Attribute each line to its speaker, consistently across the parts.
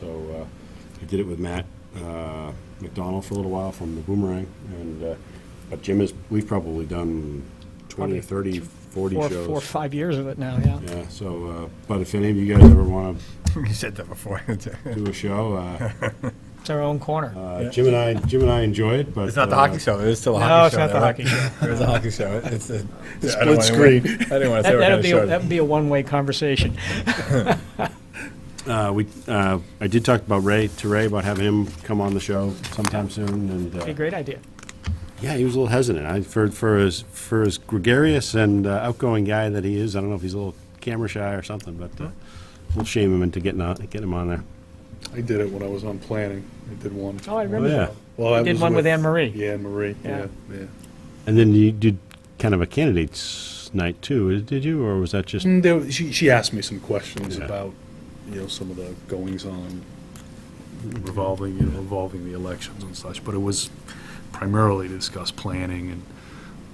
Speaker 1: So uh, I did it with Matt uh, McDonald for a little while from the Boomerang, and, uh, but Jim is, we've probably done 20 or 30, 40
Speaker 2: Four,
Speaker 1: shows.
Speaker 2: four, or five years of it now, yeah.
Speaker 1: Yeah, so, uh, but if any of you guys ever want
Speaker 3: You said that before.
Speaker 1: to do a show, uh,
Speaker 2: It's our own corner.
Speaker 1: uh, Jim and I, Jim and I enjoy it, but.
Speaker 3: It's not the
Speaker 1: uh,
Speaker 3: hockey show. It is still a
Speaker 2: No,
Speaker 3: hockey
Speaker 2: it's
Speaker 3: show.
Speaker 2: not the
Speaker 3: though.
Speaker 2: hockey show.
Speaker 3: It was a hockey show. It's a
Speaker 1: Split screen.
Speaker 3: I didn't want to say
Speaker 2: That,
Speaker 3: what kind
Speaker 2: that'd
Speaker 3: of
Speaker 2: be, a-
Speaker 3: show.
Speaker 2: that'd be a one-way conversation.
Speaker 1: Uh, we, uh, I did talk about Ray, to Ray, about having him come on the show sometime soon, and. uh,
Speaker 2: Be a great idea.
Speaker 1: Yeah, he was a little hesitant. I, for for as for as gregarious and uh, outgoing guy that he is, I don't know if he's a little camera shy or something, but uh, we'll shame him into getting on, getting him on there.
Speaker 4: I did it when I was on planning. I did one.
Speaker 2: Oh, I
Speaker 1: Oh,
Speaker 2: remember
Speaker 1: yeah,
Speaker 2: that.
Speaker 4: Well, I
Speaker 2: You did one with Anne Marie.
Speaker 4: Yeah, Anne Marie.
Speaker 2: Yeah.
Speaker 4: Yeah, yeah.
Speaker 1: and then you did kind of a candidates night too, is- did you, or was that
Speaker 2: Mm.
Speaker 1: just?
Speaker 4: And there, was- she, she asked me some questions
Speaker 1: Yeah.
Speaker 4: about, you know, some of the goings on revolving, you know, involving the elections and such. But it was primarily to discuss planning and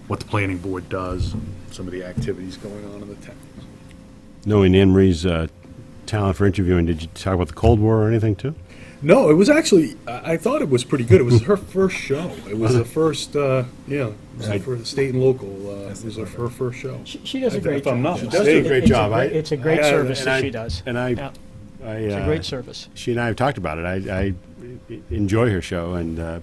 Speaker 4: what the planning board does and some of the activities going on in the town.
Speaker 1: Knowing Anne Marie's uh, talent for interviewing, did you talk about the Cold War or anything too?
Speaker 4: No, it was actually, I, I thought it was pretty good. It was her first show. It was the first, uh, yeah, it was the
Speaker 1: I-
Speaker 4: first state and local. Uh, it was her, her first show.
Speaker 2: She, she does a
Speaker 4: If-
Speaker 2: great
Speaker 4: if
Speaker 2: job.
Speaker 4: I'm not
Speaker 1: She does do a
Speaker 2: It-
Speaker 1: great
Speaker 2: it's
Speaker 1: job.
Speaker 2: great-
Speaker 1: I-
Speaker 2: It's a great
Speaker 4: I-
Speaker 2: service
Speaker 1: and
Speaker 2: that
Speaker 1: I-
Speaker 2: she does.
Speaker 1: and I-
Speaker 2: Yeah,
Speaker 1: I,
Speaker 2: It's a
Speaker 1: uh,
Speaker 2: great service.
Speaker 1: she and I have talked about it. I, I enjoy her show, and uh,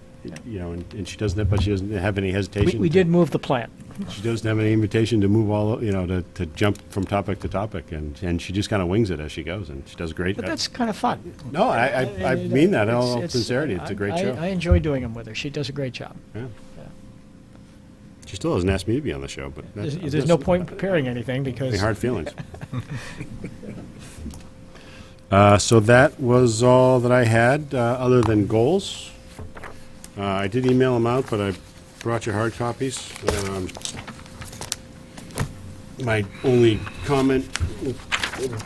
Speaker 1: you know, and, and she doesn't, but she doesn't have any
Speaker 2: We,
Speaker 1: hesitation.
Speaker 2: we
Speaker 1: to-
Speaker 2: did move the plant.
Speaker 1: She doesn't have any invitation to move all, you know, to, to jump from topic to topic, and, and she just kind of wings it as she goes, and she does great.
Speaker 2: But that's kind of fun. uh,
Speaker 1: No, I, I, I mean that in all
Speaker 2: It's- it's-
Speaker 1: sincerity. It's a great
Speaker 2: I- I
Speaker 1: show.
Speaker 2: enjoy doing them with her. She does a great job.
Speaker 1: Yeah. She still hasn't asked me to be on the show, but
Speaker 2: There's,
Speaker 1: that's.
Speaker 2: there's no point in preparing anything because
Speaker 1: Any hard feelings. Uh, so that was all that I had, uh, other than goals. Uh, I did email them out, but I brought you hard copies. Um, My only comment,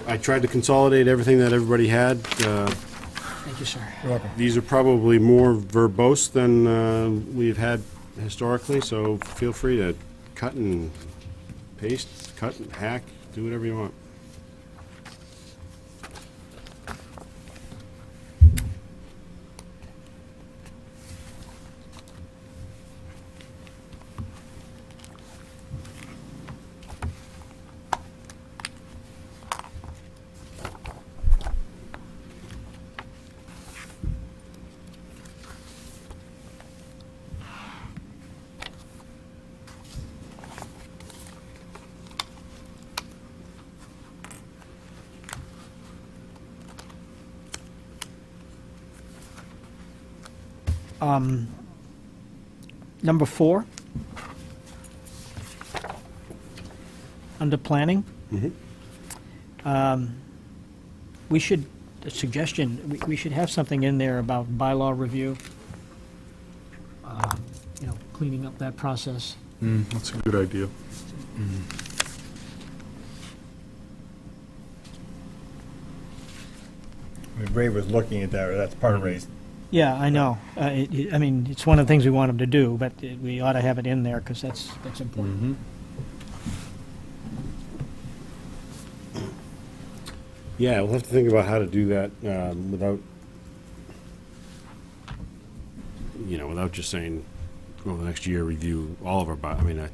Speaker 1: I tried to consolidate everything that everybody had. Uh,
Speaker 2: Thank you, sir.
Speaker 1: These are probably more verbose than uh, we've had historically, so feel free to cut and paste, cut and hack, do whatever you want.
Speaker 2: Number four, under planning. Um, We should, a suggestion, we- we should have something in there about bylaw review, uh, you know, cleaning up that process.
Speaker 4: That's a good idea.
Speaker 3: I mean, Ray was looking at that. That's part of Ray's.
Speaker 2: Yeah, I know. Uh, it- it- I mean, it's one of the things we want them to do, but it- we ought to have it in there because that's, that's important.
Speaker 1: Yeah, we'll have to think about how to do that um, without, you know, without just saying, over the next year, review all of our, bi- I mean, I-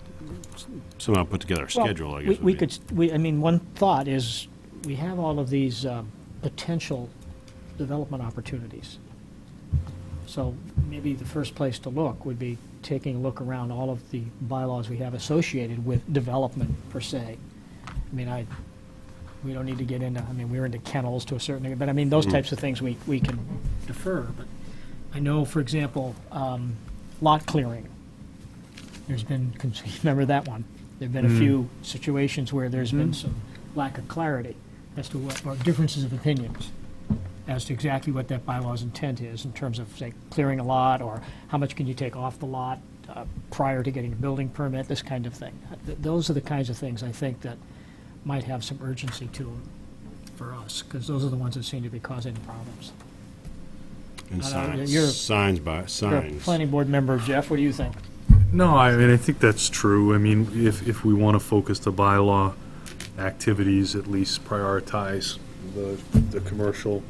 Speaker 1: somehow put together a
Speaker 2: Well,
Speaker 1: schedule, I
Speaker 2: we-
Speaker 1: guess. would
Speaker 2: We
Speaker 1: be-
Speaker 2: could, s- we, I mean, one thought is, we have all of these um, potential development opportunities. So maybe the first place to look would be taking a look around all of the bylaws we have associated with development per se. I mean, I, we don't need to get into, I mean, we're into kennels to a certain degree, but I mean,
Speaker 1: Mm.
Speaker 2: those types of things we, we can defer. But I know, for example, um, lot clearing. There's been, cons- remember that one? There've been a few situations where there's been some lack of clarity as to what, or differences of opinions as to exactly what that bylaw's intent is in terms of, say, clearing a lot, or how much can you take off the lot uh, prior to getting a building permit, this kind of thing. Uh, Th- Those are the kinds of things I think that might have some urgency to them for us, because those are the ones that seem to be causing problems.
Speaker 1: And
Speaker 2: I don't know, you're-
Speaker 1: signs, signs by,
Speaker 2: You're a
Speaker 1: signs.
Speaker 2: Planning board member, Jeff, what do you think?
Speaker 4: No, I mean, I think that's true. I mean, if, if we want to focus the bylaw activities, at least prioritize the, the commercial